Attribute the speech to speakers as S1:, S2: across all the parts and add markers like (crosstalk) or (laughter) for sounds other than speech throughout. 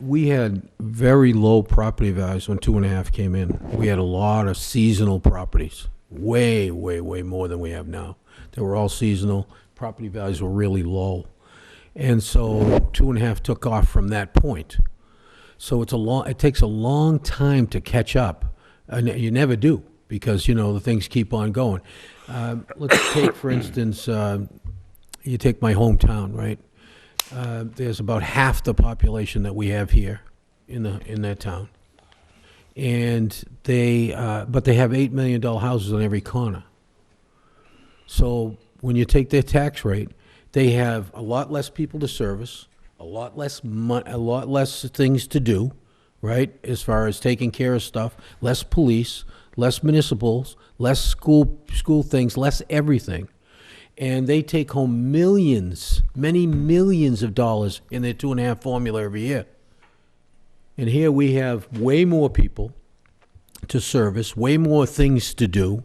S1: we had very low property values when two and a half came in. We had a lot of seasonal properties, way, way, way more than we have now. They were all seasonal. Property values were really low. And so two and a half took off from that point. So it's a long, it takes a long time to catch up. And you never do because, you know, the things keep on going. Um, let's take, for instance, uh, you take my hometown, right? Uh, there's about half the population that we have here in the, in that town. And they, uh, but they have $8 million houses on every corner. So when you take their tax rate, they have a lot less people to service, a lot less mon, a lot less things to do, right? As far as taking care of stuff, less police, less municipals, less school, school things, less everything. And they take home millions, many millions of dollars in their two and a half formula every year. And here we have way more people to service, way more things to do,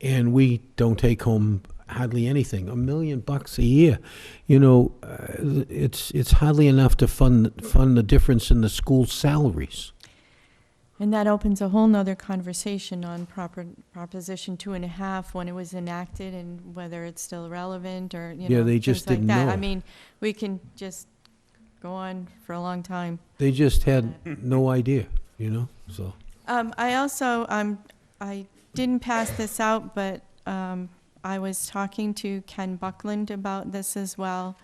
S1: and we don't take home hardly anything, a million bucks a year. You know, uh, it's, it's hardly enough to fund, fund the difference in the school salaries.
S2: And that opens a whole nother conversation on proper, Proposition Two and a Half, when it was enacted and whether it's still relevant or, you know.
S1: Yeah, they
S2: things
S1: just
S2: like
S1: didn't
S2: that.
S1: know.
S2: I mean, we can just go on for a long time.
S1: They just had no idea, you know, so.
S2: Um, I also, um, I didn't pass this out, but, um, I was talking to Ken Buckland about this as well.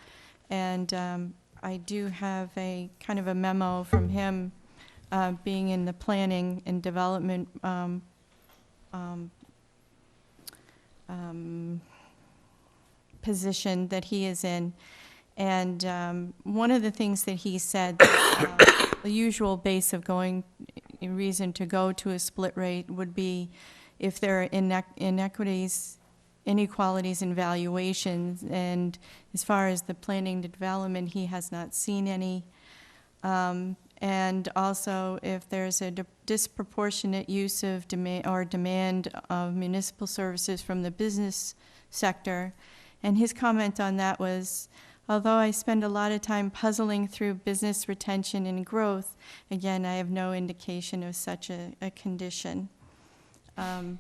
S2: And, um, I do have a kind of a memo from him, uh, being in the planning and development, um, um, um, position that he is in. And, um, one of the things that he said, (coughs) uh, the usual base of going a reason to go to a split rate would be if there are inequ- inequities, inequalities in valuations, and as far as the planning and development, he has not seen any. Um, And also, if there's a di- disproportionate use of demand, or demand of municipal services from the business sector. And his comment on that was, although I spend a lot of time puzzling through business retention and growth, Again, I have no indication of such a, a condition. Um,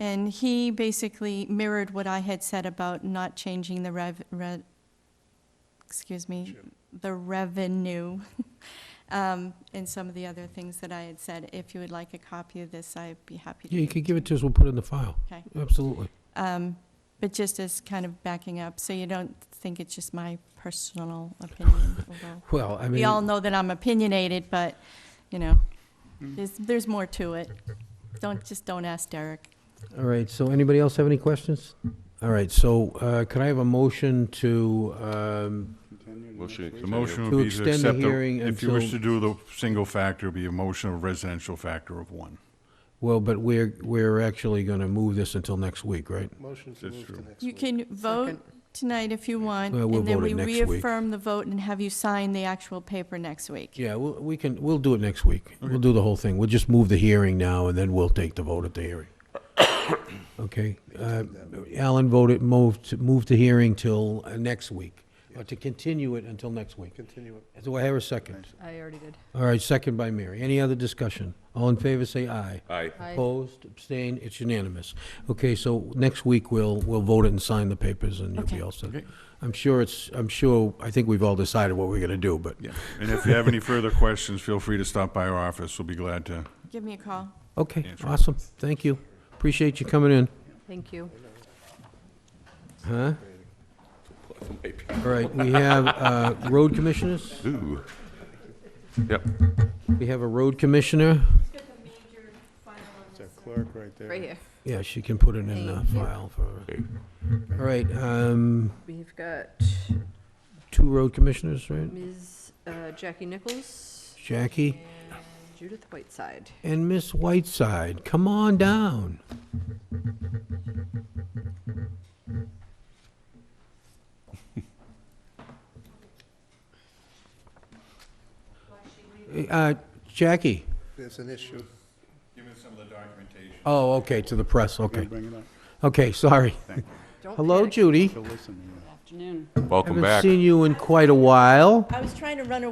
S2: And he basically mirrored what I had said about not changing the rev, re- excuse me, the revenue, (laughs) um, and some of the other things that I had said. If you would like a copy of this, I'd be happy to.
S1: Yeah, you could give it to us, we'll put it in the file.
S2: Okay.
S1: Absolutely.
S2: Um, But just as kind of backing up, so you don't think it's just my personal opinion, although
S1: Well, (laughs) I mean.
S2: we all know that I'm opinionated, but, you know,
S1: Hmm.
S2: there's, there's more to it. Don't, just don't ask Derek.
S1: All right, so anybody else have any questions? All right, so uh, could I have a motion to, um,
S3: Motion
S4: The
S3: to
S4: motion
S1: To
S4: would be to
S1: extend the
S4: accept, the-
S1: hearing
S4: if you wish to
S1: until-
S4: do the single factor, it'd be a motion of residential factor of one.
S1: well, but we're, we're actually going to move this until next week, right?
S3: Motion to
S4: That's
S3: move to
S4: true.
S3: next
S2: You
S3: week.
S2: can vote tonight if you want,
S1: Well, we'll
S2: and then
S1: vote
S2: we
S1: it next week.
S2: reaffirm the vote and have you sign the actual paper next week.
S1: Yeah, we'll- we can, we'll do it next week. We'll do the whole thing. We'll just move the hearing now, and then we'll take the vote at the hearing. Okay? uh, Alan voted, moved, moved the hearing till uh, next week, or to continue it until next week.
S3: Continue it.
S1: Do I have a second?
S5: I already did.
S1: All right, second by Mary. Any other discussion? All in favor, say aye.
S3: Aye.
S5: Aye.
S1: Opposed, abstained, it's unanimous. Okay, so next week, we'll, we'll vote it and sign the papers, and you'll be
S2: Okay.
S1: all set.
S4: Okay.
S1: I'm sure it's, I'm sure, I think we've all decided what we're gonna do, but,
S4: Yeah. And if you have any further questions, feel free to stop by our office. We'll be glad to
S2: Give me a call.
S1: okay,
S4: Yeah, sure.
S1: awesome, thank you. Appreciate you coming in.
S5: Thank you.
S1: Huh? All right, we have uh, road commissioners.
S3: Ooh. Yep.
S1: We have a road commissioner.
S3: It's our clerk right there.
S5: Right here.
S1: Yeah, she can put it in the
S5: Thank you.
S1: file for,
S3: Okay.
S1: all right, um,
S5: We've got
S1: two road commissioners, right?
S5: Ms. uh, Jackie Nichols
S1: Jackie
S5: and Judith Whiteside.
S1: and Miss Whiteside, come on down. (laughs) Uh, Jackie,
S3: There's an issue.
S4: give us some of the documentation.
S1: oh, okay, to the press,
S3: We'll
S1: okay,
S3: Bring it up.
S1: okay, sorry.
S5: Don't
S1: Hello,
S5: panic.
S1: Judy.
S3: She'll listen.
S1: Haven't seen you in quite a while.
S2: I was trying to run away